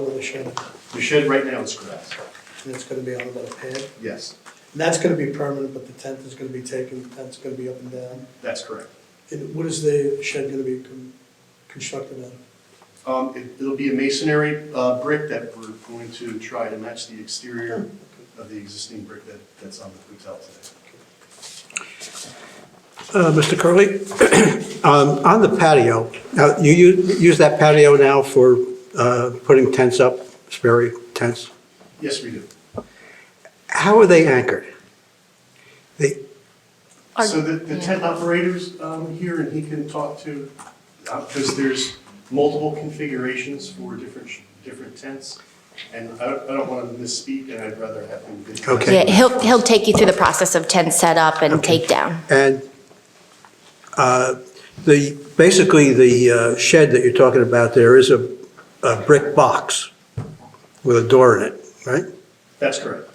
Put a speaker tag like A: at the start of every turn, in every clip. A: over the shed,
B: The shed right now is grass.
A: and it's gonna be on about a pad. And
B: Yes,
A: that's gonna be permanent, but the tent is gonna be taken, the tent's gonna be up and down.
B: that's correct.
A: And what is the shed gonna be con- constructed out of?
B: Um, it- It'll be a masonry uh, brick that we're going to try to match the exterior of the existing brick that that's on the hotel today.
C: Uh, Mr. Curley, um, on the patio, now, you u- use that patio now for uh, putting tents up, Sperry tents?
B: Yes, we do.
C: How are they anchored? They,
D: Are-
B: So the the tent operator's um, here and he can talk to, because there's multiple configurations for different, sh- different tents. And I don't- I don't want to misspeak and I'd rather have him. get-
C: Okay.
D: Yeah, he'll, he'll take you through the process of tent setup and
C: Okay.
D: takedown.
C: and uh, the, basically, the uh, shed that you're talking about there is a a brick box with a door in it, right?
B: That's correct.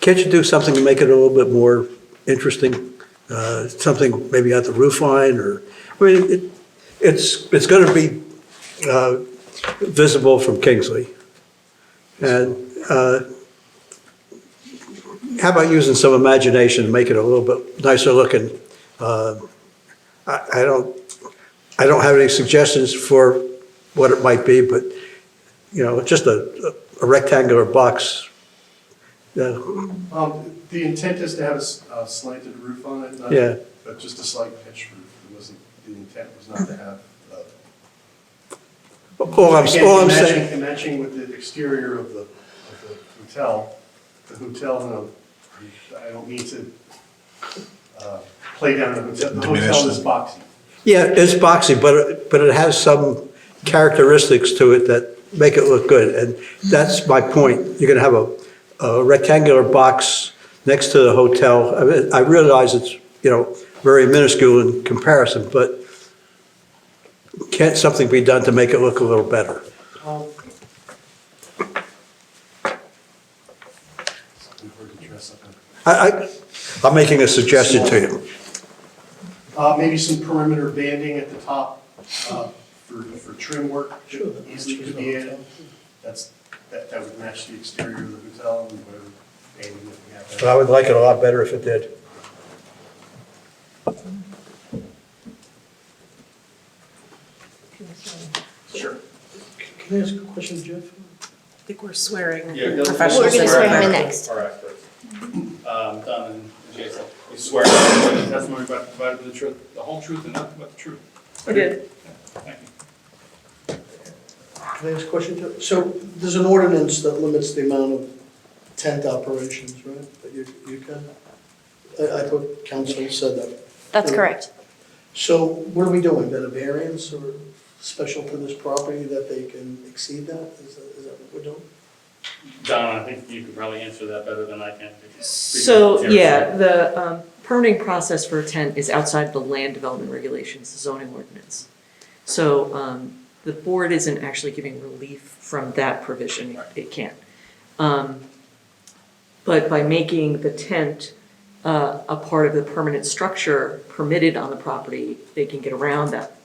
C: Can't you do something to make it a little bit more interesting? Uh, Something maybe at the roof line or, I mean, it- it's, it's going to be uh, visible from Kingsley. And uh, how about using some imagination to make it a little bit nicer looking? Uh, I I don't, I don't have any suggestions for what it might be, but, you know, just a a rectangular box. uh,
B: Um, The intent is to have a s- a slanted roof on it, not,
C: Yeah.
B: but just a slight pitch roof. It wasn't, the intent was not to have. uh,
C: All I'm,
B: again,
C: all I'm
B: matching-
C: saying,
B: Matching with the exterior of the, of the hotel, the hotel, and I don't mean to uh, play down the hotel. The hotel is boxy.
C: yeah, it's boxy, but, it- but it has some characteristics to it that make it look good, and that's my point. You're gonna have a, a rectangular box next to the hotel. I mean, I realize it's, you know, very minuscule in comparison, but can't something be done to make it look a little better?
B: Um, Something hard to dress up in.
C: I, I, I'm making a suggestion to you.
B: Uh, Maybe some perimeter banding at the top uh, for, for trim work. that Easily could be added. That's, that, that would match the exterior of the hotel and whatever banding that we have.
C: But I would like it a lot better if it did.
B: Sure.
A: Can I ask a question, Jeff?
E: I think we're swearing
F: Yeah, you'll-
E: professional
D: We're gonna swear him in
E: swearing.
D: next.
F: All right, first. Um, Don and Jason, you swear that the testimony about provided the truth, the whole truth and nothing but the truth.
E: I did.
F: Thank you.
A: Can I ask a question, Jeff? So there's an ordinance that limits the amount of tent operations, right, that you, you can? I, I thought council said that.
D: That's correct.
A: So what are we doing, then a variance or special to this property that they can exceed that? Is that, is that what we're doing?
F: Don, I think you could probably answer that better than I can.
E: So,
F: Appreciate it.
E: yeah, the um, permitting process for a tent is outside the land development regulations, the zoning ordinance. So um, the board isn't actually giving relief from that provision, it can't. Um, But by making the tent uh, a part of the permanent structure permitted on the property, they can get around that.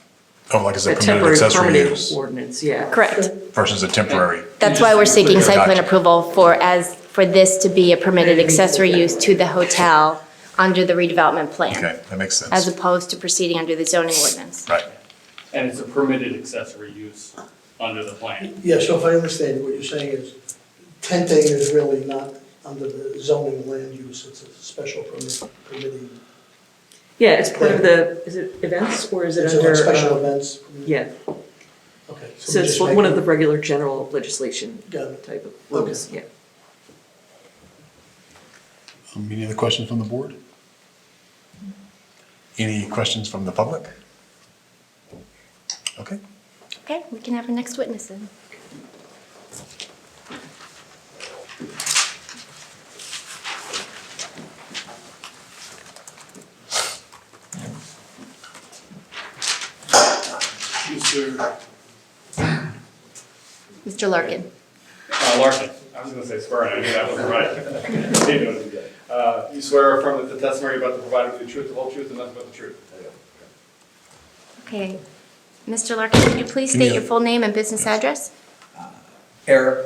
G: Oh, like as a
E: That
G: permitted
E: temporary
G: accessory
E: permitted
G: use
E: ordinance, yeah.
D: Correct.
G: versus a temporary.
D: That's why we're seeking site plan
G: Gotcha.
D: approval for as, for this to be a permitted accessory use to the hotel under the redevelopment plan,
G: Okay, that makes sense.
D: as opposed to proceeding under the zoning ordinance.
G: Right.
F: And it's a permitted accessory use under the plan.
A: Yeah, so if I understand, what you're saying is tenting is really not under the zoning land use, it's a special permit, permitting.
E: Yeah, it's part of the, is it events or is it
A: It's
E: under?
A: like special
E: um,
A: events.
E: Yeah.
A: Okay. we
E: So it's
A: just
E: one of the
A: make
E: regular general legislation
A: it- Got it.
E: type of rules, yeah.
G: Um, Any other questions from the board? Any questions from the public? Okay.
D: Okay, we can have our next witness in.
B: Mr.
D: Mr. Larkin.
F: Uh, Larson, I was gonna say swear, and I knew that wasn't right. Didn't know it. Uh, you swear affirm that the testimony about the provided the truth, the whole truth and nothing but the truth.
D: Okay. Mr. Larkin, could you please state your full name and business address?
H: Eric